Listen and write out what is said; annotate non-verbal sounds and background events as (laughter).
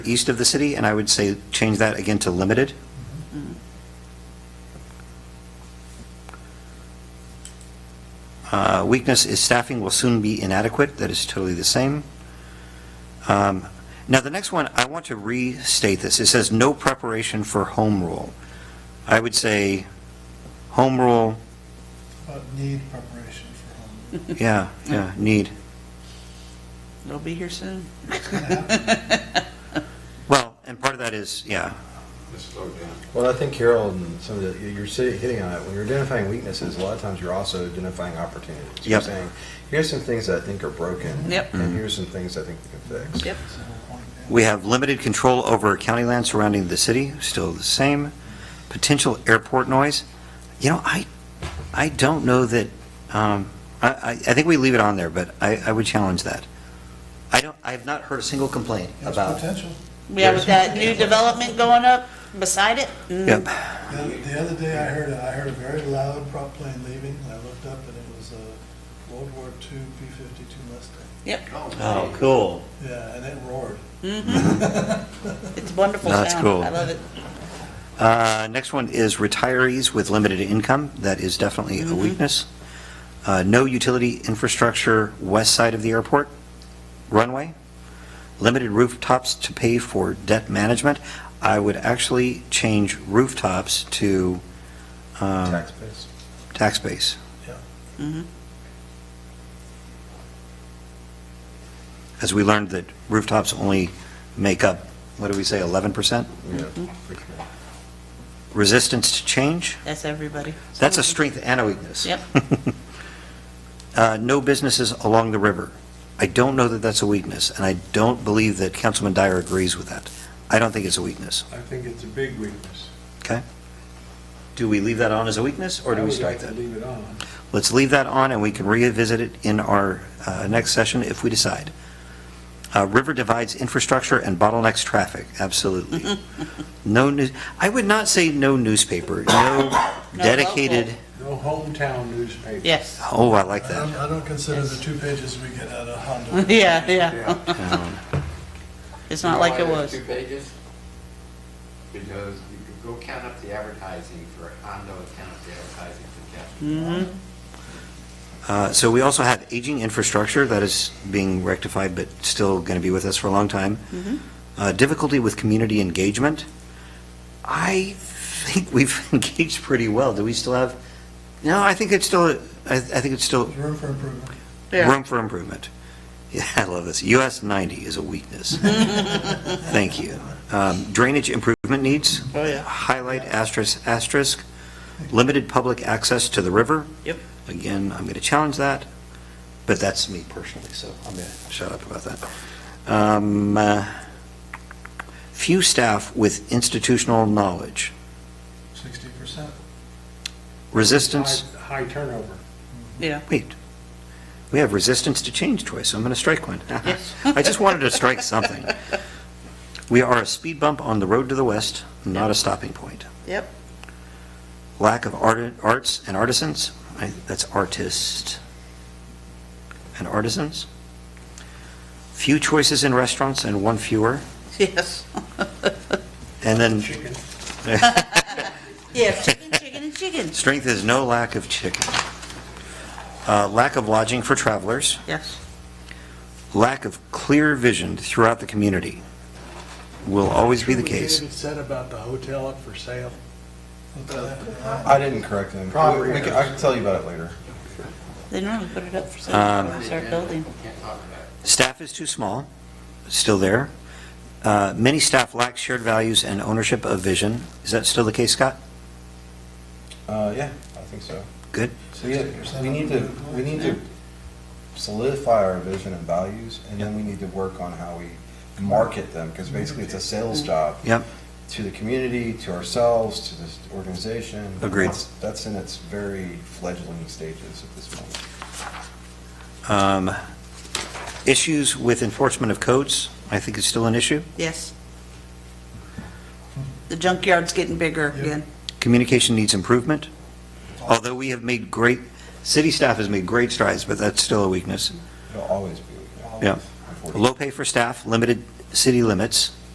east of the city, and I would say change that again to limited. Uh, Weakness is staffing will soon be inadequate, that is totally the same. Um, Now, the next one, I want to restate this. It says, "No preparation for home rule." I would say, home rule, But uh, need preparation for home. yeah, yeah, need. It'll be here soon. Well, and part of that is, yeah, Well, I think Carol and some of the, you're si- hitting on it. When you're identifying weaknesses, a lot of times you're also identifying opportunities. You're Yep. saying, here's some things that I think are broken. Yep. And here's some things I think we can fix. Yep. That's the whole point, yeah. We have limited control over county land surrounding the city, still the same. Potential airport noise, you know, I, I don't know that, um, I, I I think we leave it on there, but I, I would challenge that. I don't, I have not heard a single complaint There's about. potential. Yeah, with that new development going up beside it. mm, Yep, The other- The other day I heard, a- I heard a very loud prop plane leaving, and I looked up and it was a World War II B-52 Mustang. Yep. oh, cool. Yeah, and it roared. Mm-hmm. (laughs) It's wonderful That's sound. cool. I love it. Uh, next one is retirees with limited income, that is definitely a weakness. Uh, no utility infrastructure west side of the airport runway. Limited rooftops to pay for debt management. I would actually change rooftops to um, Tax base. tax base. Yeah. As we learned that rooftops only make up, what do we say, 11%? Yeah. for sure. Resistance to change, That's everybody. that's a strength and a weakness. Yep. (laughs) uh, no businesses along the river. I don't know that that's a weakness, and I don't believe that Councilman Dyer agrees with that. I don't think it's a weakness, I think it's a big weakness. okay? Do we leave that on as a weakness, or do we strike I that? would like to leave it on. Let's leave that on, and we can revisit it in our uh, next session if we decide. Uh, River divides infrastructure and bottlenecks traffic, absolutely. No news, I would not say no newspaper, no No dedicated, local. No hometown newspaper. Yes. (laughs) oh, I like I don't, (laughs) that. I don't consider the two pages we get out of Honda. (laughs) Yeah, yeah. Yeah. Um, It's not like it was. Two pages? Because you could go count up the advertising for Hondo and count up the advertising for Mm-hmm. Captain. Uh, So we also have aging infrastructure that is being rectified, but still going to be with us for a long time. Uh, Difficulty with community engagement. I think we've (laughs) engaged pretty well. Do we still have, no, I think it's still, I I think it's still There's room for improvement. room for improvement. (laughs) Yeah, I love this. US 90 is a weakness. Thank you. Um, Drainage improvement needs. Oh, yeah. Highlight asterisk, asterisk. Limited public access to the river. Yep. Again, I'm going to challenge that, but that's me personally, so I'm going to shut up about that. Um, uh, Few staff with institutional knowledge. Sixty percent. Resistance, High- High turnover. Yeah. wait, we have resistance to change twice, so I'm going to strike one. (laughs) I just wanted to strike something. We are a speed bump on the road to the west, not a stopping point. Yep. (laughs) Lack of art- arts and artisans, I- that's artist and artisans. Few choices in restaurants and one fewer. Yes. And then Chicken. (laughs) Yeah. Chicken, chicken, and chicken. strength is no lack of chicken. Uh, Lack of lodging for travelers, Yes. lack of clear vision throughout the community will always be the case. It said about the hotel up for sale. What the heck? I didn't correct him. Property We- we can- I can tell you about it later. They normally put it up for sale before we start building. Can't talk about it. Staff is too small, still there. Uh, Many staff lack shared values and ownership of vision. Is that still the case, Scott? Uh, yeah, I think so. Good. We, 60% we need to, we need to solidify our vision and values, and then we need to work on how we market them, because basically it's a sales job. Yep. To the community, to ourselves, to this organization. Agreed. That's- That's in its very fledgling stages at this point. Um, Issues with enforcement of codes, I think is still an issue. Yes. The junkyard's getting bigger again. Communication needs improvement, although we have made great, city staff has made great strides, but that's still a weakness. It'll always be. Yeah. Unfortunately. Low pay for staff, limited city limits.